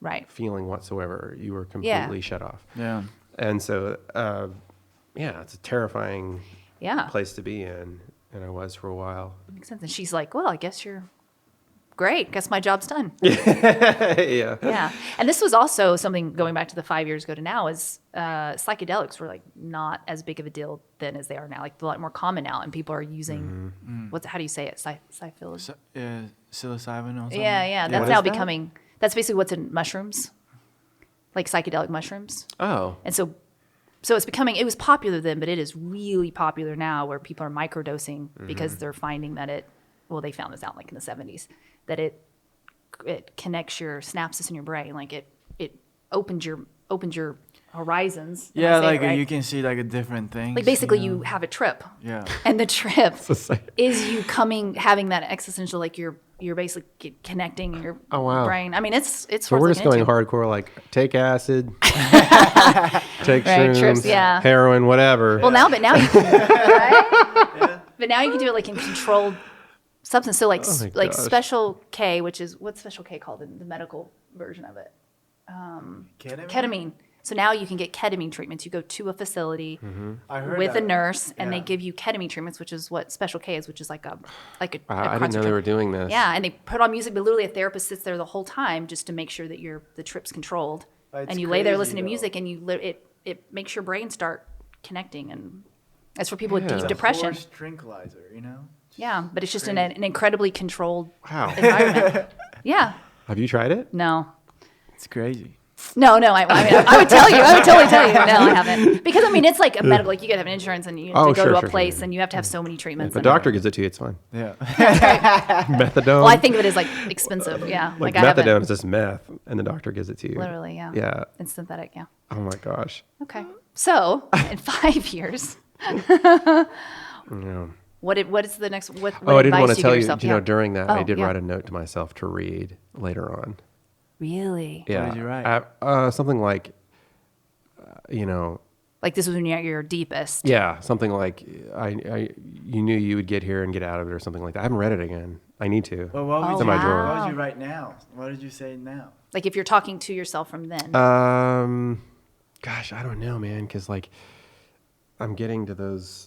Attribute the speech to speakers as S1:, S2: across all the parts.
S1: Right.
S2: feeling whatsoever. You were
S1: Yeah.
S2: completely shut off.
S3: Yeah.
S2: And so, uh, yeah, it's a terrifying
S1: Yeah.
S2: place to be in. And I was for a while.
S1: Makes sense. And she's like, well, I guess you're great. Guess my job's done.
S2: yeah.
S1: yeah. And this was also something going back to the five years ago to now is uh, psychedelics were like not as big of a deal then as they are now. Like they're a lot more common now, and people are using
S2: Mm-hmm.
S1: what's how do you say it? Psy- psyphilis.
S3: So, uh, psilocybin or something?
S1: yeah, yeah. That's
S2: What
S1: now
S2: is that?
S1: becoming. That's basically what's in mushrooms, like psychedelic mushrooms.
S2: Oh.
S1: And so so it's becoming it was popular then, but it is really popular now where people are microdosing because they're finding that it well, they found this out like in the seventies, that it it connects your synapses in your brain. Like it it opened your opened your horizons. Am I
S3: Yeah,
S1: saying it
S3: like uh,
S1: right?
S3: you can see like a different thing.
S1: like basically you have a trip.
S3: Yeah.
S1: And the trip
S2: same.
S1: is you coming having that existential like you're you're basically c- connecting your
S2: Oh, wow.
S1: brain. I mean it's it's
S2: So
S1: worth
S2: we're just
S1: looking
S2: going
S1: into.
S2: hardcore, like take acid, take
S1: Right,
S2: shrooms,
S1: trips, yeah.
S2: heroin, whatever.
S1: Well, now, but now you can, right? But now you can do it like in controlled substance. So like s
S2: Oh my
S1: like
S2: gosh.
S1: special K, which is what's special K called in the medical version of it?
S3: Ketamine?
S1: Ketamine. So now you can get ketamine treatments. You go to a facility
S2: Mm-hmm.
S3: I heard
S1: with a
S3: that.
S1: nurse, and they
S3: Yeah.
S1: give you ketamine treatments, which is what special K is, which is like a like a. a
S2: wow, I didn't know they
S1: concentra-
S2: were doing this.
S1: Yeah, and they put on music, but literally a therapist sits there the whole time just to make sure that your the trip's controlled.
S3: But it's
S1: and you lay there
S3: crazy,
S1: listening to
S3: though.
S1: music, and you li- it it makes your brain start connecting, and that's for people
S2: Yeah.
S1: with
S2: It's
S1: deep
S2: a
S1: depression.
S3: Horse tranquilizer, you know?
S1: Yeah, but it's just in an,
S3: crazy.
S1: an incredibly controlled
S2: Wow.
S1: environment. yeah,
S2: Have you tried it?
S1: no,
S3: It's crazy.
S1: no, no. I, I mean, I would tell you. I would totally tell you. No, I haven't because I mean, it's like a medical. Like you got to have an insurance, and you have
S2: Oh,
S1: to
S2: sure,
S1: go to a
S2: sure, sure,
S1: place,
S2: yeah.
S1: and you have to have so many treatments.
S2: If a
S1: and-
S2: doctor gives it to you, it's fine.
S3: Yeah.
S2: Methadone.
S1: Well, I think of it as like expensive. Yeah,
S2: like,
S1: I haven't-
S2: methadone is just meth, and the doctor gives it to you.
S1: Literally, yeah.
S2: Yeah.
S1: It's synthetic. Yeah.
S2: Oh my gosh.
S1: Okay. Um, So in five years,
S2: Yeah.
S1: what did, what is the next? What, what
S2: Oh, I didn't
S1: advice
S2: want to
S1: do
S2: tell
S1: give
S2: you.
S1: yourself?
S2: You
S1: Yeah.
S2: know, during that, I
S1: Oh,
S2: did
S1: yeah.
S2: write a note to myself to read later on.
S1: Really?
S2: Yeah.
S3: did you write?
S2: I- uh, something like, uh, you know,
S1: Like this was when you're at your deepest.
S2: yeah, something like I, I, you knew you would get here and get out of it, or something like that. I haven't read it again. I need to.
S3: Well, what would,
S1: Oh,
S3: you,
S2: in my drawer.
S3: what would
S1: wow.
S3: you write now? What did you say now?
S1: Like if you're talking to yourself from then.
S2: Uh, Um, gosh, I don't know, man, because like I'm getting to those.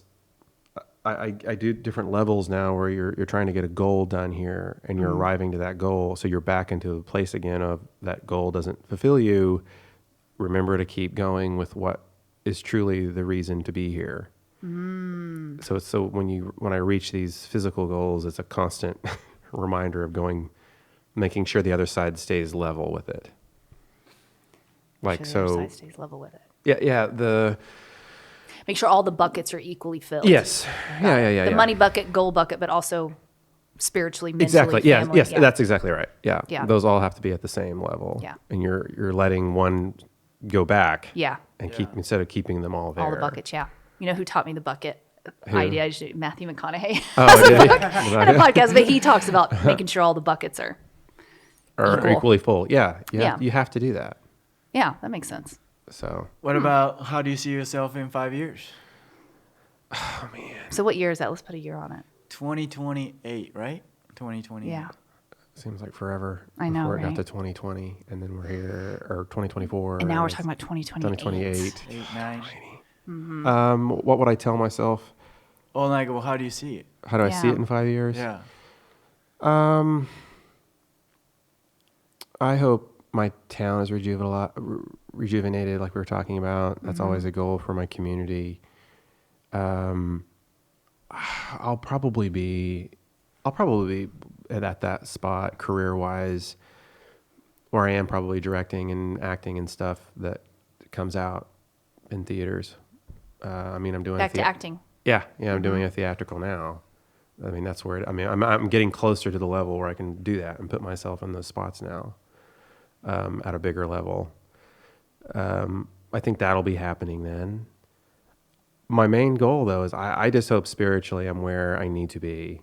S2: I, I, I do different levels now where you're you're trying to get a goal done here and you're arriving to that goal, so you're back into a place again of that goal doesn't fulfill you. Remember to keep going with what is truly the reason to be here. So it's so when you when I reach these physical goals, it's a constant reminder of going, making sure the other side stays level with it. Like
S1: Sure, your
S2: so,
S1: side stays level with it.
S2: yeah, yeah. The
S1: Make sure all the buckets are equally filled.
S2: yes, yeah, yeah, yeah.
S1: The
S2: yeah.
S1: money bucket, goal bucket, but also spiritually, mentally,
S2: exactly. Yes,
S1: family.
S2: yes, that's exactly right. Yeah,
S1: Yeah.
S2: Those all have to be at the same level.
S1: Yeah.
S2: and you're you're letting one go back.
S1: Yeah.
S2: and
S3: Yeah.
S2: keep instead of keeping them all there.
S1: all the buckets. Yeah. You know who taught me the bucket
S2: Who?
S1: idea? I just did- Matthew McConaughey
S2: Oh, yeah,
S1: on a podcast, but he talks about making sure all the buckets are.
S2: Or
S1: Equal.
S2: equally full. Yeah, you have,
S1: Yeah.
S2: You have to do that.
S1: Yeah, that makes sense.
S2: So
S3: What about how do you see yourself in five years?
S1: So what year is that? Let's put a year on it.
S3: 2028, right? 2028.
S1: Yeah.
S2: Seems like forever.
S1: I know,
S2: Before it
S1: right?
S2: got to 2020, and then we're here, or 2024.
S1: And now we're
S2: it's
S1: talking about 2028.
S2: 2028.
S3: Eight, nine.
S2: Um, what would I tell myself?
S3: Or like, well, how do you see it?
S2: How do I see
S1: Yeah.
S2: it in five years?
S3: Yeah.
S2: Um, I hope my town is rejuveni- re- rejuvenated, like we were talking about. That's
S1: Mm-hmm.
S2: always a goal for my community. Um, I'll probably be, I'll probably be at, at that spot career wise, where I am probably directing and acting and stuff that comes out in theaters. Uh, I mean, I'm doing
S1: Back to
S2: thea-
S1: acting.
S2: yeah, yeah, I'm doing a theatrical now. I mean, that's where it, I mean, I'm I'm getting closer to the level where I can do that and put myself in those spots now, um, at a bigger level. Um, I think that'll be happening then. My main goal though is I, I just hope spiritually I'm where I need to be,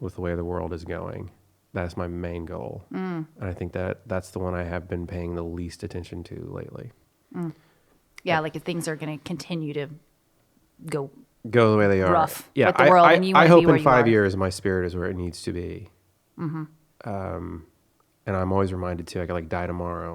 S2: with the way the world is going. That's my main goal, and I think that that's the one I have been paying the least attention to lately.
S1: Yeah, like if things are going to continue to go.
S2: go the way they are.
S1: rough
S2: Yeah,
S1: with the
S2: I,
S1: world,
S2: I,
S1: and you
S2: I
S1: Mm-hmm. wanna be
S2: hope
S1: where
S2: in
S1: you
S2: five
S1: are.
S2: Um, years my spirit is where it needs to be. and I'm always reminded too. I could like die tomorrow,